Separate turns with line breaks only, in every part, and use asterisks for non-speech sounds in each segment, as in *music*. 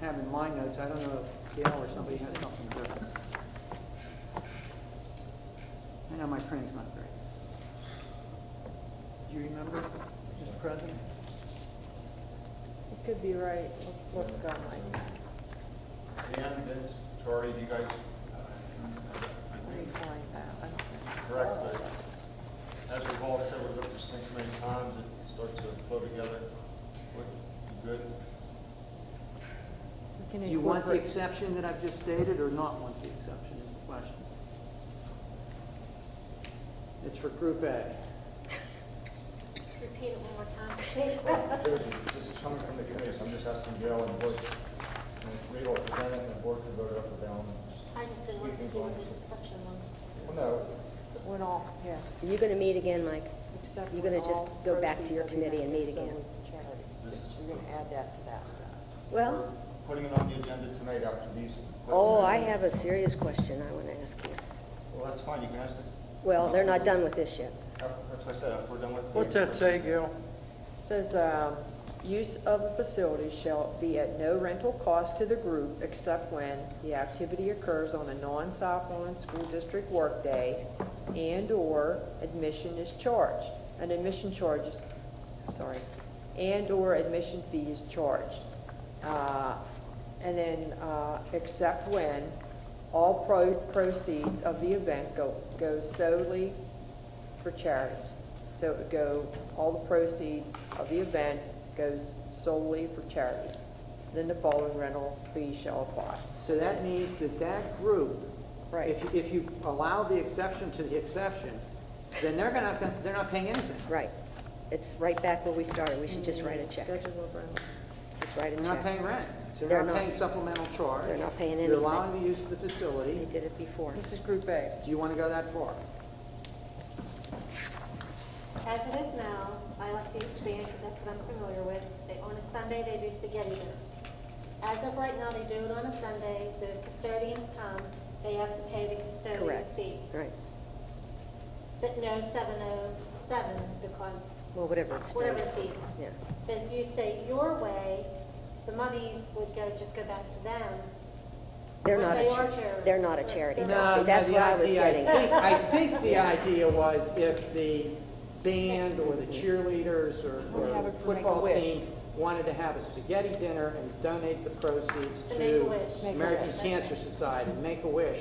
have in my notes, I don't know if Gail or somebody has something to it. I know my printing's not great. Do you remember, Mr. President?
It could be right, let's look online.
Dan, Vince, Tori, you guys uh,
Let me find that, I don't know.
correct, but as we've all said, we've looked at this thing so many times, it starts to flow together. What, you good?
We can
Do you want the
incorporate-
exception that I've just stated or not want the exception is the question? It's for Group A.
Repeat it one more time,
*laughs*
please.
Oh, This is coming from the committee, so I'm just asking Gail and Boyd, and Reed will present it, and the board can vote it up or down.
I just didn't want to see what this exception was.
Well, no,
When all, yeah.
Are you going to meet again, Mike?
Except
You're
when
gonna just
all
go back to your
proceeds are
committee and meet
donated
again?
to charity.
This is-
You're gonna add that to that. one.
we're
Well,
putting it on the agenda tonight after these.
oh, I have a serious question I want to ask you.
Well, that's fine, you can ask them.
Well, they're
Um,
not done with this yet.
That's what I said, after we're done with.
What's that say, Gail?
Says, um, use of the facility shall be at no rental cost to the group except when the activity occurs on a non-Southmoreland school district workday and/or admission is charged. An admission charge is, sorry, and/or admission fee is charged. Uh, And then, uh, except when all pro- proceeds of the event go, go solely for charity. So it would go, all the proceeds of the event goes solely for charity. Then the following rental fee shall apply.
So that means that that group,
Right.
if, you- if you allow the exception to the exception, then they're gonna, have to- they're not paying anything.
Right. It's right back where we started. We should just write a check.
Schedule of rental.
Just write a
They're not paying
check.
rent. So
They're
they're not
not.
paying supplemental charge.
They're not paying
You're
anything.
allowing the use of the
We
facility.
did it before.
This is Group A.
Do you want to go that far?
As it is now, I like the East Band because that's what I'm familiar with. They, on a Sunday, they do spaghetti dinners. As of right now, they do it on a Sunday, the custodians come, they have to pay the custodian
Correct.
fees.
Right.
But no seven oh seven because
Well, whatever it's.
whatever
done.
fees.
Yeah.
But if you say your way, the monies would go, just go back to them.
They're
Or
not
they
a,
are
cha-
charity.
they're not a charity.
No,
though. See, that's what I was getting. at.
I think the idea was if the band or the cheerleaders or
Or have
or
a- make a
football
wish.
team wanted to have a spaghetti dinner and donate the proceeds
To Make a
to
Wish.
Make a
American
Wish.
Cancer Society, Make-A-Wish.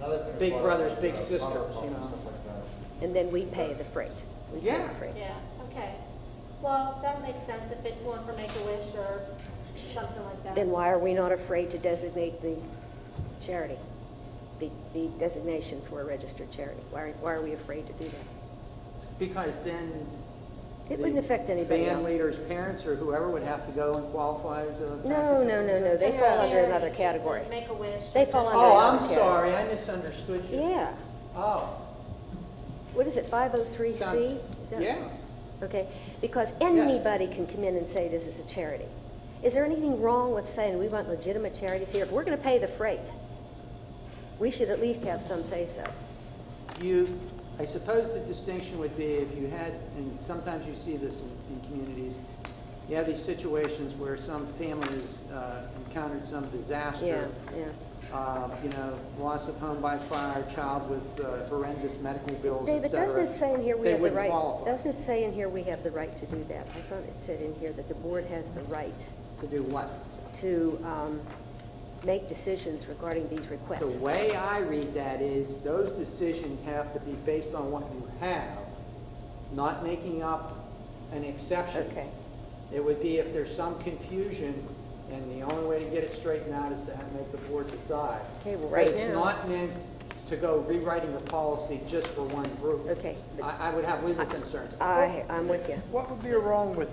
Another thing
Big
about,
brothers, big
uh,
sisters,
Thunderpump
you
and
know.
stuff like that.
And then we pay the freight. We pay the
Yeah.
freight.
Yeah, okay. Well, that makes sense if it's one for Make-A-Wish or something like that.
Then why are we not afraid to designate the charity? The, the designation for a registered charity? Why, are- why are we afraid to do that?
Because then.
It
the
wouldn't affect anybody
Band
else.
leader's parents or whoever would have to go and qualify as a.
No, no, no, no, they
It's
fall
a
under
charity,
another
just
category.
like Make-A-Wish.
They fall under-
Oh, I'm
Okay.
sorry, I misunderstood you.
Yeah.
Oh,
What is it, 503C? Is that-
yeah.
Okay, because anybody can come in and say this is a charity. Is there anything wrong with saying we want legitimate charities here? If we're going to pay the freight, we should at least have some say-so.
You, I suppose the distinction would be if you had, and sometimes you see this in, in communities, you have these situations where some family has uh, encountered some
Yeah,
disaster.
yeah.
Uh, you know, loss of home by fire, child with uh, horrendous medical bills, et
David, doesn't
cetera.
it say in here we
They
have the
wouldn't
right?
qualify
Doesn't it say in here we have the right to do that? I thought it said in here that the board has the right
to do what?
to um, make decisions regarding these requests.
The way I read that is, those decisions have to be based on what you have, not making up an exception.
Okay.
It would be if there's some confusion, and the only way to get it straightened out is to have, make the board decide.
Okay, well,
But
right
it's
now-
not meant to go rewriting the policy just for one group.
Okay, but-
I, I would have legal concerns.
I, I'm with you.
What would be wrong with,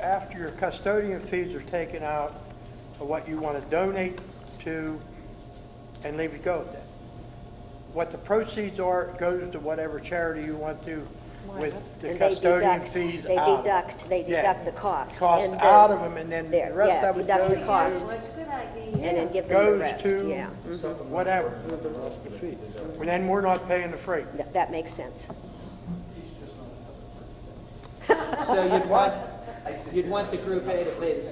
after your custodian fees are taken out, of what you want to donate to, and leave it go at that? What the proceeds are goes to whatever charity you want to with the
And they
custodian
deduct-
fees
they
out. of it.
deduct- they
Yeah.
deduct the cost
Cost
and the-
out of them, and then the
There,
rest
yeah,
of it
deduct the
goes to
cost.
What's a good
And
idea?
then give them the
Goes
rest,
to-
yeah.
whatever. And then we're not paying the freight.
That- That makes sense.
So you'd want, you'd want the group A to pay the